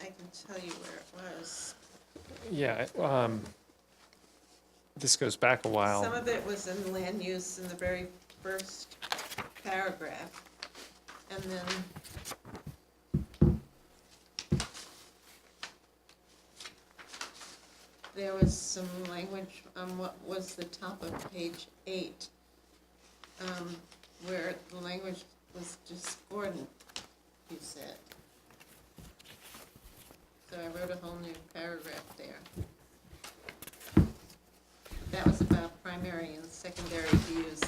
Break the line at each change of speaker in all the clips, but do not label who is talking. tell you where it was.
Yeah, um, this goes back a
Some
while.
of it was in land use in the very first paragraph. And then. There was some language on what was the top of page eight. Um, where the language was discordant, you said. So I wrote a whole new paragraph there. That was about primary and secondary use.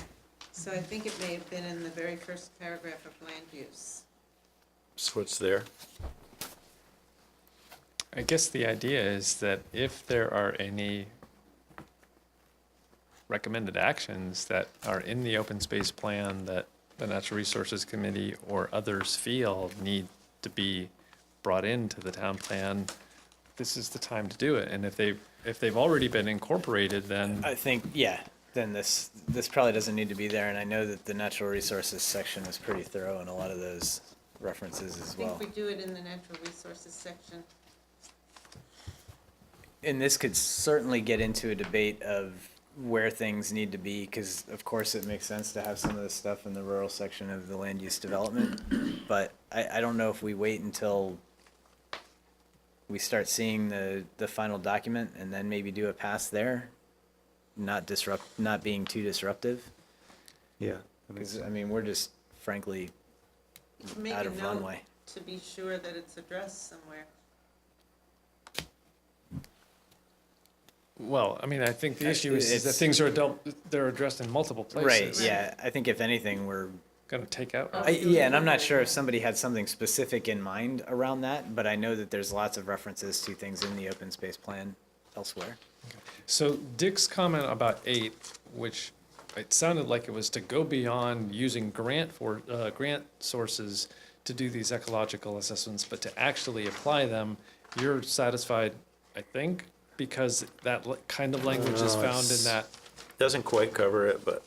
So I think it may have been in the very first paragraph of land use.
So it's there.
I guess the idea is that if there are any recommended actions that are in the open space plan that the Natural Resources Committee or others feel need to be brought into the town plan, this is the time to do it. And if they, if they've already been incorporated, then
I think, yeah, then this, this probably doesn't need to be there, and I know that the natural resources section was pretty thorough in a lot of those references
I
as
think
well.
we do it in the natural resources section.
And this could certainly get into a debate of where things need to be, because of course it makes sense to have some of this stuff in the rural section of the land use development, but I, I don't know if we wait until we start seeing the, the final document and then maybe do a pass there, not disrupt, not being too disruptive.
Yeah.
Because, I mean, we're just frankly
You can make
out
a
of
note
runway.
to be sure that it's addressed somewhere.
Well, I mean, I think the
Uh,
issue is, is that
it's-
things are adult, they're addressed in multiple
Right,
places.
yeah, I think if anything, we're,
Going to take out.
Oh.
I, yeah, and I'm not sure if somebody had something specific in mind around that, but I know that there's lots of references to things in the open space plan elsewhere.
So Dick's comment about eight, which it sounded like it was to go beyond using grant for, uh, grant sources to do these ecological assessments, but to actually apply them, you're satisfied, I think, because that li- kind of language is
No,
found in
it's-
that.
Doesn't quite cover it, but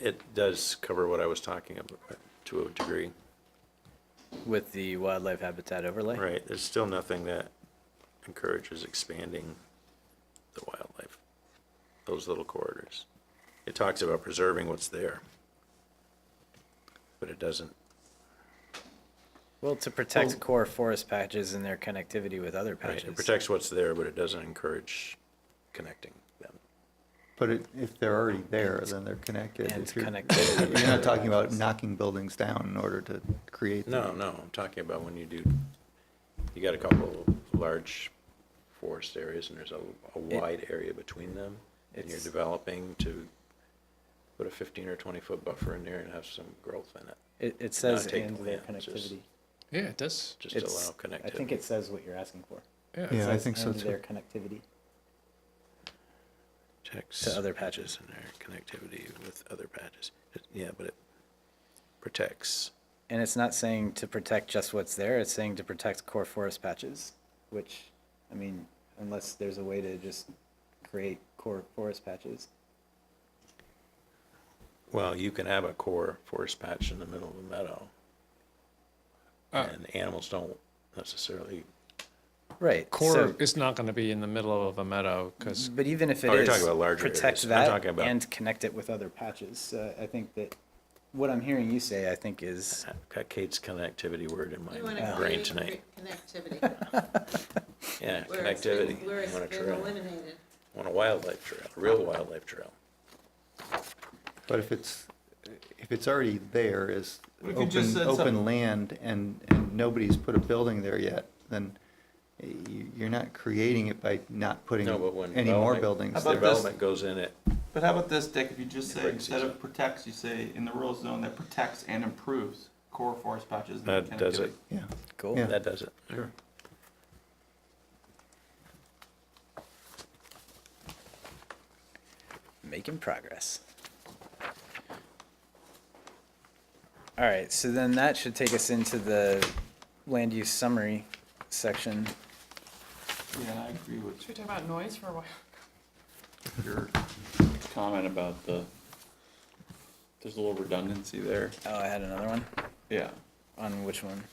it does cover what I was talking about to a degree.
With the wildlife habitat overlay?
Right, there's still nothing that encourages expanding the wildlife, those little corridors. It talks about preserving what's there. But it doesn't,
Well, to protect core forest patches and their connectivity with other
right, it
patches.
protects what's there, but it doesn't encourage connecting them.
But it- if they're already there, then they're connected.
And
If you're-
connectivity with
You're not
other
talking about
patches.
knocking buildings down in order to create. them.
No, no, I'm talking about when you do, you got a couple of large forest areas and there's a, a wide area between them. And you're
It's-
developing to put a fifteen or twenty foot buffer in there and have some growth in it,
It, it says
take
and their
land, just-
connectivity.
Yeah, it does.
just to
It's,
allow
I think
connectivity.
it says what you're asking for.
Yeah.
Yeah. I
Says,
think so
"And
too."
Their connectivity.
Protects
to other
patches in there, connectivity with other patches. It- Yeah, but it protects.
And it's not saying to protect just what's there, it's saying to protect core forest patches, which, I mean, unless there's a way to just create core forest patches.
Well, you can have a core forest patch in the middle of a meadow.
Uh,
And animals don't necessarily,
Right.
Core
so-
is not going to be in the middle of a meadow because
But even if it
Oh, you're
is,
talking about larger areas.
protect
I'm
that
talking about-
and connect it with other patches. So I think that what I'm hearing you say, I think is,
I've got Kate's connectivity word in
You want
my
to
brain
create
tonight.
connectivity.
Yeah,
where it's been-
connectivity.
Where it's
Want a
been
trail.
eliminated.
Want a wildlife trail, a real wildlife trail.
But if it's, if it's already there as
What if you just
open,
said
open
something-
land and, and nobody's put a building there yet, then you, you're not creating it by not putting
No, but when
any more
development-
buildings
How about
there.
this?
Development goes in it,
But how about this, Dick, if you just say,
Briggs
instead
is-
of protects, you say, in the rural zone that protects and improves core forest patches and
that does it,
connectivity."
Yeah,
cool.
Yeah.
that does it. Sure.
making progress. All right, so then that should take us into the land use summary section.
Yeah, I agree with
Should we talk about noise for a while?
your comment about the, there's a little redundancy there.
Oh, I had another one.
Yeah.
On which one?